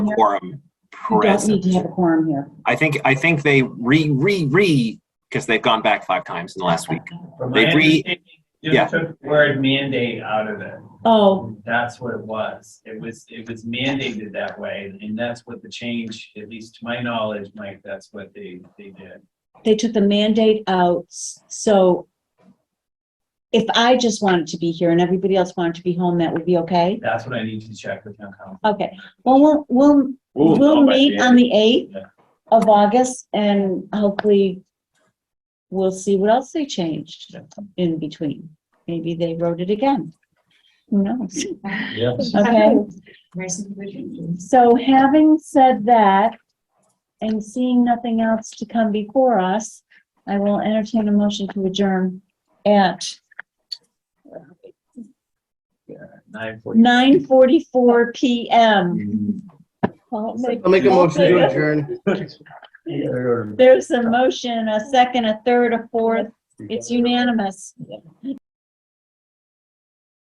quorum You don't need present. to have a quorum here. I think, I think they re, re, re, because they've gone back five times in the last week. From They my re- understanding, yeah. you took the word mandate out of it. Oh, That's what it was. It was, it was mandated that way, and that's what the change, at least to my knowledge, Mike, that's what they, they did. they took the mandate out, s- so if I just wanted to be here and everybody else wanted to be home, that would be okay? That's what I need to check with town council. Okay, well, we'll, we'll, we'll meet on the 8th Yeah. of August and hopefully we'll see what else they changed in between. Maybe they wrote it again. Who knows? Yeah. Okay. So having said that, and seeing nothing else to come before us, I will entertain a motion to adjourn at Nine forty. nine forty-four PM. Well, I'll make a motion to there's- adjourn. There's a motion, a second, a third, a fourth. It's unanimous.